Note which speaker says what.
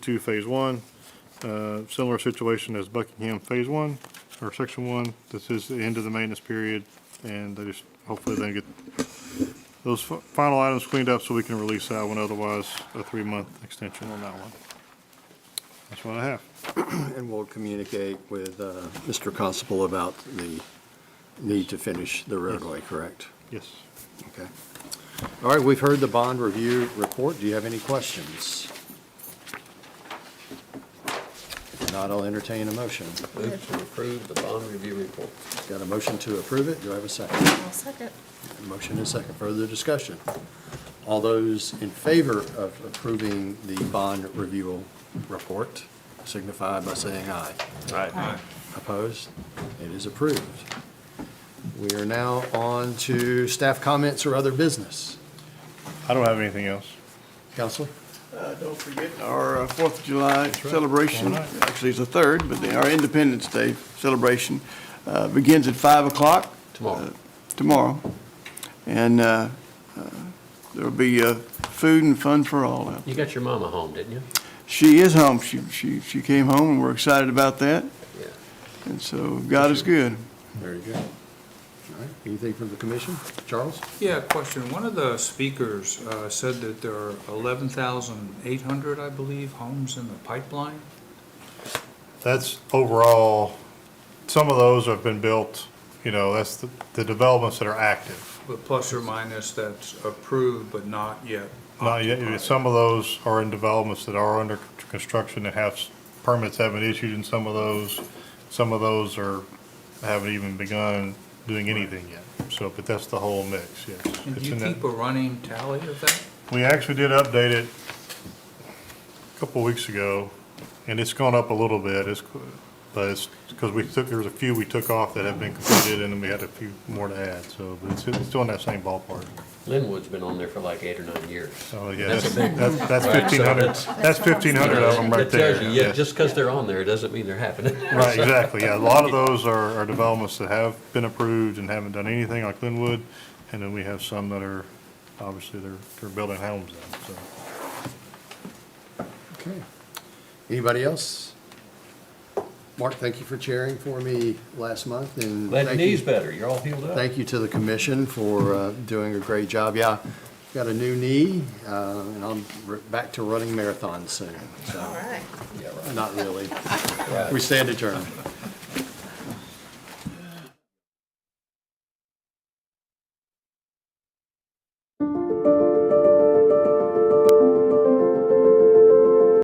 Speaker 1: to Phase One. Uh, Similar situation as Buckingham Phase One, or Section One. This is the end of the maintenance period, and they just, hopefully they get those fi- final items cleaned up so we can release that one, otherwise a three-month extension on that one. That's what I have.
Speaker 2: And we'll communicate with uh, Mr. Constable about the need to finish the roadway, correct?
Speaker 1: Yes.
Speaker 2: Okay. All right, we've heard the bond review report. Do you have any questions? If not, I'll entertain a motion.
Speaker 3: Move to approve the bond review report.
Speaker 2: Got a motion to approve it? Do I have a second?
Speaker 4: I'll second.
Speaker 2: Motion and second. Further discussion? All those in favor of approving the bond review report signify by saying aye.
Speaker 3: Aye.
Speaker 2: Opposed? It is approved. We are now on to staff comments or other business.
Speaker 1: I don't have anything else.
Speaker 2: Counselor?
Speaker 5: Uh, Don't forget our uh, Fourth of July celebration, actually it's the third, but the- our Independence Day celebration uh, begins at 5 o'clock.
Speaker 3: Tomorrow.
Speaker 5: uh, Tomorrow. And uh, uh, there'll be uh, food and fun for all. out.
Speaker 3: You got your mama home, didn't you?
Speaker 5: She is home, she, she, she came home, and we're excited about that,
Speaker 3: Yeah.
Speaker 5: and so God is good.
Speaker 2: Very good. All right, anything from the commission? Charles?
Speaker 6: Yeah, question. One of the speakers uh, said that there are 11,800, I believe, homes in the pipeline.
Speaker 1: That's overall, some of those have been built, you know, that's the, the developments that are active.
Speaker 6: But plus or minus, that's approved but not yet
Speaker 1: Not yet,
Speaker 6: occupied.
Speaker 1: some of those are in developments that are under construction that have, s- permits haven't issued in some of those. Some of those are, haven't even begun doing anything yet. So, but that's the whole mix, yes.
Speaker 6: And
Speaker 1: It's
Speaker 6: do you
Speaker 1: in that-
Speaker 6: keep a running tally of that?
Speaker 1: We actually did update it a couple of weeks ago, and it's gone up a little bit, it's, but it's, because we took, there was a few we took off that have been completed, and then we had a few more to add, so, but it's, it's still in that same ballpark.
Speaker 3: Linwood's been on there for like eight or nine years.
Speaker 1: So, Oh, yeah,
Speaker 3: That's a
Speaker 1: that's,
Speaker 3: big
Speaker 1: that's that's
Speaker 3: Right, so
Speaker 1: fifteen hundred,
Speaker 3: that's-
Speaker 1: that's fifteen hundred of them right
Speaker 3: That tells
Speaker 1: there.
Speaker 3: you,
Speaker 1: yeah.
Speaker 3: Yeah, just because they're on there doesn't mean they're happening.
Speaker 1: Right, exactly, yeah, a lot of those are, are developments that have been approved and haven't done anything, like Linwood, and then we have some that are, obviously, they're, they're building homes in, so.
Speaker 2: Okay. Anybody else? Mark, thank you for chairing for me last month and.
Speaker 3: That
Speaker 2: thank
Speaker 3: knee's
Speaker 2: you-
Speaker 3: better. You're all healed up.
Speaker 2: Thank you to the commission for uh, doing a great job. Yeah, got a new knee, uh, and I'm r- back to running marathons soon, so,
Speaker 4: All right.
Speaker 3: Yeah, right.
Speaker 2: not really.
Speaker 3: Right.
Speaker 2: We stand adjourned.